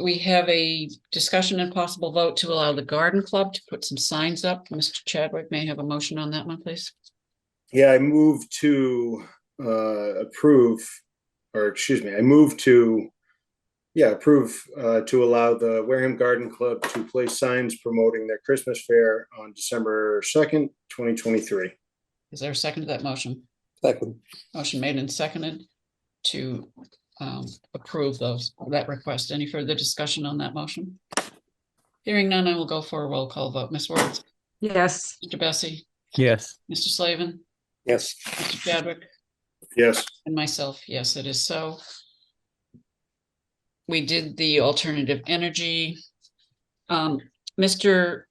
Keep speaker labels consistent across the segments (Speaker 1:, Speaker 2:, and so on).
Speaker 1: we have a discussion and possible vote to allow the garden club to put some signs up. Mr. Chadwick may I have a motion on that one, please.
Speaker 2: Yeah, I move to uh approve, or excuse me, I move to, yeah, approve uh to allow the Wareham Garden Club to place signs promoting their Christmas fair on December second, twenty twenty-three.
Speaker 1: Is there a second to that motion?
Speaker 3: Second,
Speaker 1: Motion made and seconded to um approve those, that request. Any further discussion on that motion? Hearing none, I will go for a roll call vote. Ms. Wertz,
Speaker 4: yes,
Speaker 1: Mr. Bessie,
Speaker 5: yes,
Speaker 1: Mr. Slavin,
Speaker 3: yes,
Speaker 1: Mr. Chadwick.
Speaker 2: Yes,
Speaker 1: And myself, yes, it is so. We did the alternative energy. Um, Mr.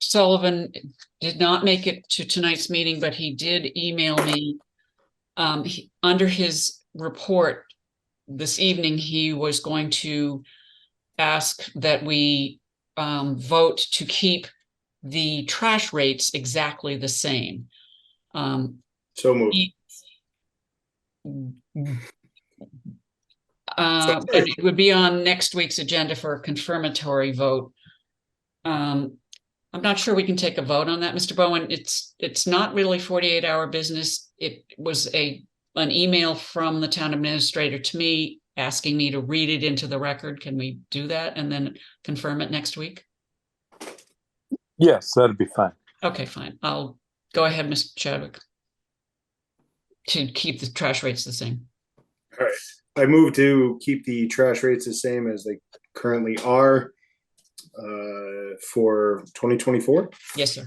Speaker 1: Sullivan did not make it to tonight's meeting, but he did email me. Um, he- under his report this evening, he was going to ask that we um vote to keep the trash rates exactly the same. Um,
Speaker 2: so moved.
Speaker 1: Uh, and it would be on next week's agenda for a confirmatory vote. Um, I'm not sure we can take a vote on that, Mr. Bowen. It's, it's not really forty-eight hour business. It was a, an email from the town administrator to me asking me to read it into the record. Can we do that and then confirm it next week?
Speaker 5: yes, that'd be fine.
Speaker 1: Okay, fine. I'll go ahead, Mr. Chadwick. To keep the trash rates the same.
Speaker 2: I move to keep the trash rates the same as they currently are uh for twenty twenty-four.
Speaker 1: Yes, sir.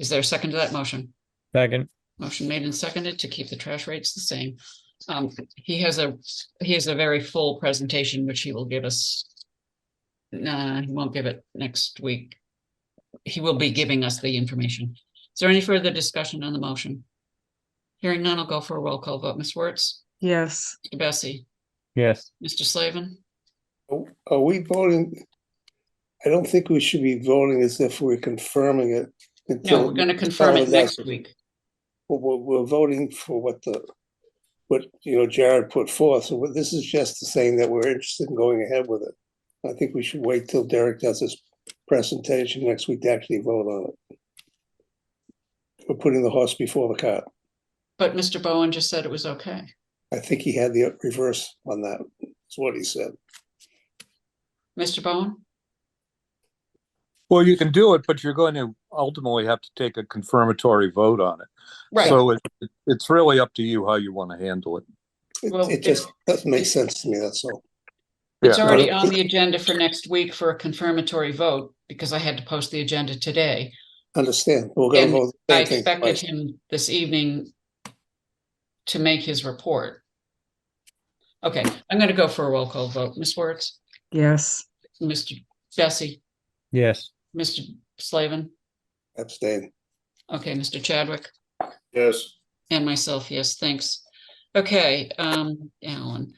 Speaker 1: Is there a second to that motion?
Speaker 5: Second,
Speaker 1: Motion made and seconded to keep the trash rates the same. Um, he has a, he has a very full presentation, which he will give us. Nah, he won't give it next week. He will be giving us the information. Is there any further discussion on the motion? Hearing none, I'll go for a roll call vote. Ms. Wertz,
Speaker 4: yes.
Speaker 1: Mr. Bessie,
Speaker 5: yes,
Speaker 1: Mr. Slavin.
Speaker 3: are we voting? I don't think we should be voting as if we're confirming it.
Speaker 1: No,
Speaker 3: until-
Speaker 1: we're gonna confirm it
Speaker 3: Sorry,
Speaker 1: next
Speaker 3: that's-
Speaker 1: week.
Speaker 3: We're, we're- we're voting for what the, what, you know, Jared put forth, so what- this is just saying that we're interested in going ahead with it. I think we should wait till Derek does his presentation next week to actually vote on it. We're putting the horse before the cart.
Speaker 1: But Mr. Bowen just said it was okay.
Speaker 3: I think he had the reverse on that, is what he said.
Speaker 1: Mr. Bowen?
Speaker 5: well, you can do it, but you're going to ultimately have to take a confirmatory vote on it. So it, it's really up to you how you want to handle it.
Speaker 3: It,
Speaker 1: Well,
Speaker 3: it just doesn't make sense to me, that's all.
Speaker 1: It's
Speaker 5: Yeah.
Speaker 1: already on the agenda for next week for a confirmatory vote because I had to post the agenda today.
Speaker 3: Understand, we're gonna
Speaker 1: And
Speaker 3: vote. the
Speaker 1: I
Speaker 3: same thing
Speaker 1: expected
Speaker 3: twice.
Speaker 1: him this evening to make his report. Okay, I'm going to go for a roll call vote. Ms. Wertz,
Speaker 4: Yes,
Speaker 1: Mr. Bessie,
Speaker 5: Yes,
Speaker 1: Mr. Slavin.
Speaker 3: Abstain.
Speaker 1: Okay, Mr. Chadwick
Speaker 2: Yes,
Speaker 1: and myself, yes, thanks. Okay, um, Alan.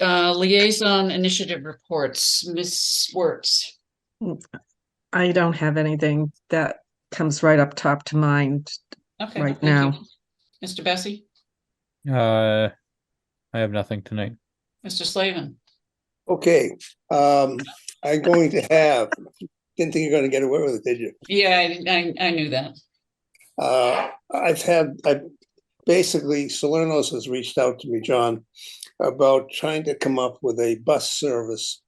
Speaker 1: Uh, liaison initiative reports, Ms. Wertz.
Speaker 4: I don't have anything that comes right up top to mind.
Speaker 1: Okay.
Speaker 4: Right
Speaker 1: thank you.
Speaker 4: now.
Speaker 1: Mr. Bessie?
Speaker 5: uh, I have nothing tonight.
Speaker 1: Mr. Slavin,
Speaker 3: Okay, um, I'm going to have, didn't think you're gonna get away with it, did you?
Speaker 1: yeah, I- I, I knew that.
Speaker 3: Uh, I've had, I, basically Salernos has reached out to me, John, about trying to come up with a bus service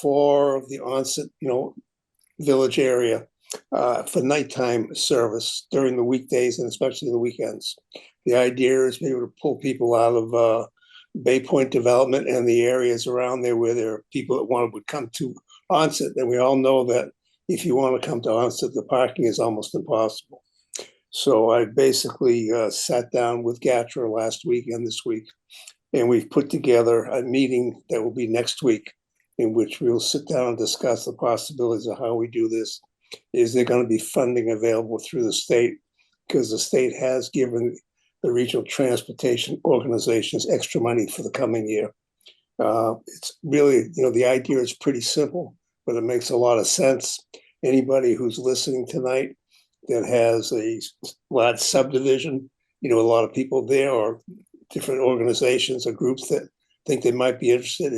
Speaker 3: for the onset, you know, village area, uh, for nighttime service during the weekdays and especially the weekends. The idea is maybe to pull people out of, uh, Bay Point Development and the areas around there where there are people that want, would come to onset. And we all know that if you want to come to onset, the parking is almost impossible. So I basically uh, sat down with Gatra last week and this week, and we've put together a meeting that will be next week in which we'll sit down and discuss the possibilities of how we do this. Is there going to be funding available through the state? Because the state has given the regional transportation organizations extra money for the coming year. Uh, It's really, you know, the idea is pretty simple, but it makes a lot of sense. Anybody who's listening tonight that has a s- large subdivision, you know, a lot of people there or different organizations or groups that think they might be interested